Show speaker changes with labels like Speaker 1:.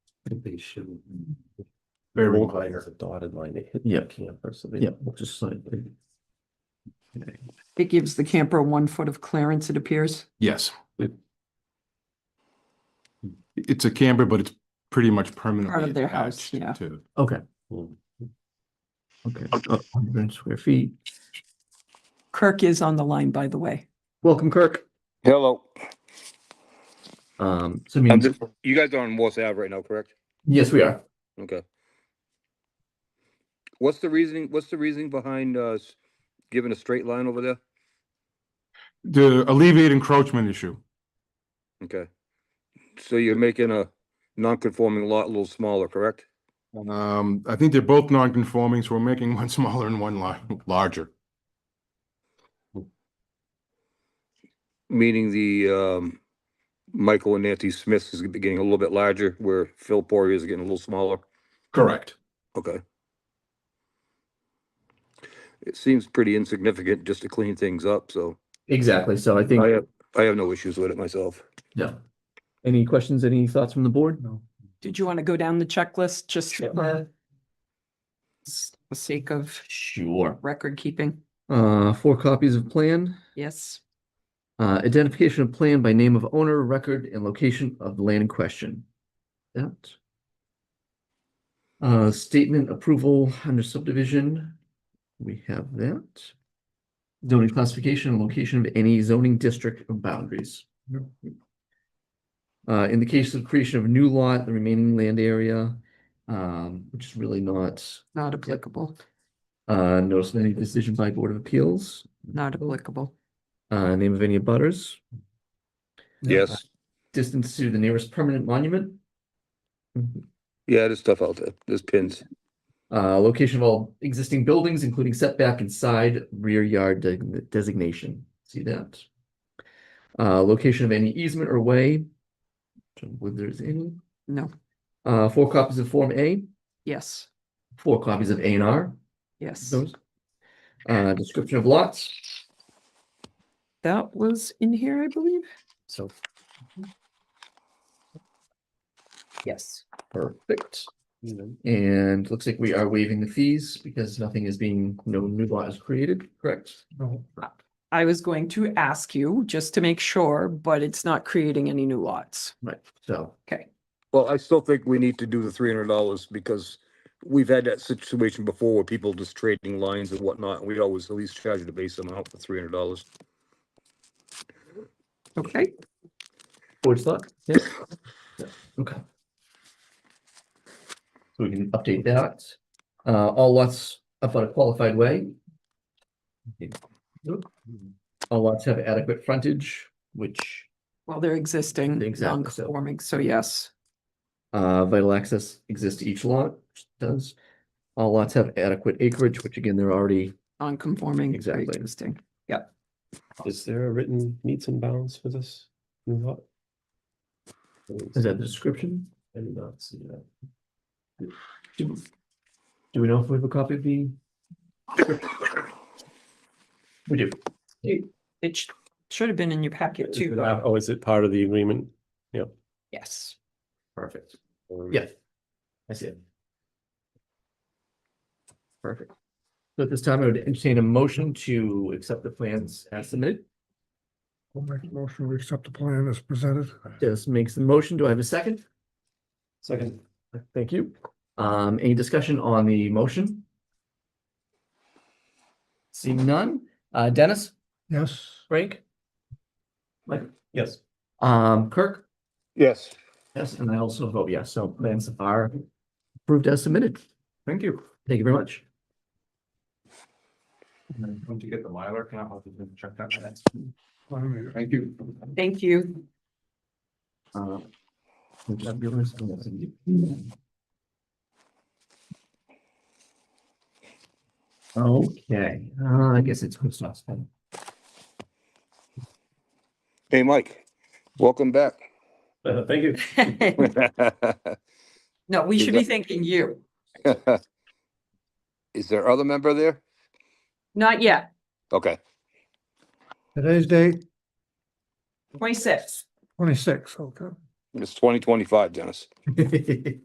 Speaker 1: think they should.
Speaker 2: Very
Speaker 1: Bold
Speaker 2: minor.
Speaker 1: lines, a Dotted line, they hit
Speaker 3: Yeah.
Speaker 1: the camper, so they.
Speaker 3: Yeah.
Speaker 1: Just sign.
Speaker 4: It gives the camper one foot of clearance, it appears.
Speaker 2: Yes.
Speaker 1: It-
Speaker 2: It's a camber, but it's pretty much permanently.
Speaker 4: Part of their house,
Speaker 2: attached
Speaker 4: yeah.
Speaker 2: to-
Speaker 3: Okay,
Speaker 1: Mm.
Speaker 3: okay, Uh, hundred square feet.
Speaker 4: Kirk is on the line, by the way.
Speaker 3: Welcome, Kirk.
Speaker 5: Hello,
Speaker 3: Um, so
Speaker 5: I'm
Speaker 3: means,
Speaker 5: just, you guys are on Morse Ave right now, correct?
Speaker 3: yes, we are.
Speaker 5: Okay. What's the reasoning, what's the reasoning behind us giving a straight line over there?
Speaker 2: To alleviate encroachment issue.
Speaker 5: Okay. So you're making a non-conforming lot a little smaller, correct?
Speaker 2: Um, I think they're both non-conforming, so we're making one smaller and one lar- larger.
Speaker 5: Meaning the, um, Michael and Nancy Smiths is getting a little bit larger, where Phil Poirier is getting a little smaller.
Speaker 2: Correct.
Speaker 5: Okay. It seems pretty insignificant just to clean things up, so
Speaker 3: Exactly, so I
Speaker 5: I
Speaker 3: think,
Speaker 5: have, I have no issues with it myself.
Speaker 3: yeah. Any questions, any thoughts from the board? No.
Speaker 4: Did you want to go down the checklist just for s- the sake of
Speaker 3: Sure.
Speaker 4: record keeping?
Speaker 3: Uh, four copies of plan,
Speaker 4: Yes.
Speaker 3: uh, identification of plan by name of owner, record, and location of the land in question. That. Uh, statement approval under subdivision, we have that. Zoning classification and location of any zoning district or boundaries. Uh, in the case of creation of a new lot, the remaining land area, um, which is really not,
Speaker 4: Not applicable,
Speaker 3: uh, notice of any decision by Board of Appeals,
Speaker 4: not applicable.
Speaker 3: uh, name of any abutters.
Speaker 5: Yes,
Speaker 3: distance to the nearest permanent monument.
Speaker 5: yeah, there's stuff out there, there's pins.
Speaker 3: Uh, location of all existing buildings, including setback and side rear yard de- designation. See that? Uh, location of any easement or way. Don't believe there's any.
Speaker 4: No,
Speaker 3: Uh, four copies of Form A,
Speaker 4: yes,
Speaker 3: four copies of A and R.
Speaker 4: yes.
Speaker 3: Those. Uh, description of lots.
Speaker 4: That was in here, I believe.
Speaker 3: So
Speaker 4: Yes.
Speaker 3: perfect. And looks like we are waiving the fees because nothing is being, no new lot is created, correct?
Speaker 4: I was going to ask you just to make sure, but it's not creating any new lots.
Speaker 3: Right, so.
Speaker 4: Okay,
Speaker 5: Well, I still think we need to do the three hundred dollars because we've had that situation before where people just trading lines and whatnot, and we always at least charge the base amount for three hundred dollars.
Speaker 4: okay.
Speaker 3: Board's thought? Yeah. Yeah, Okay. So we can update that. Uh, all lots up on a qualified way. All lots have adequate frontage, which,
Speaker 4: Well, they're existing,
Speaker 3: Exactly, so-
Speaker 4: non-conforming, so yes.
Speaker 3: uh, vital access exists to each lot, which it does. All lots have adequate acreage, which again, they're already,
Speaker 4: Non-conforming,
Speaker 3: Exactly.
Speaker 4: pre-existing.
Speaker 1: Is there a written meets and bounds for this? new lot?
Speaker 3: is that the description?
Speaker 1: I did not see that.
Speaker 3: Do do we know if we have a copy of the? We do.
Speaker 4: It sh- should have been in your packet
Speaker 1: Is it-
Speaker 4: too.
Speaker 1: Oh, is it part of the agreement?
Speaker 4: Yes.
Speaker 3: Perfect. Yes. I see it. Perfect. So at this time, I would entertain a motion to accept the plans as submitted.
Speaker 6: We'll make a motion to accept the plan as presented.
Speaker 3: Just makes the motion. Do I have a second?
Speaker 1: Second.
Speaker 3: Thank you. Um, any discussion on the motion? Seeing none. Uh, Dennis,
Speaker 6: Yes,
Speaker 3: Frank,
Speaker 1: Yes.
Speaker 3: um, Kirk?
Speaker 5: Yes.
Speaker 3: Yes, and I also vote yes. So plans are approved as submitted. Thank you. Thank you very much.
Speaker 7: Once you get the Mylar, can I help you check that?
Speaker 6: I'm here.
Speaker 7: Thank you.
Speaker 4: Thank you.
Speaker 3: Uh, would that be all right? Okay, uh, I guess it's who's last one.
Speaker 5: Hey, Mike, welcome back.
Speaker 1: Uh, thank you.
Speaker 4: No, we should be thanking you.
Speaker 5: Is there other member there?
Speaker 4: Not yet,
Speaker 5: Okay,
Speaker 6: today's date,
Speaker 4: twenty-six.
Speaker 6: twenty-six, okay.
Speaker 5: it's twenty twenty-five, Dennis.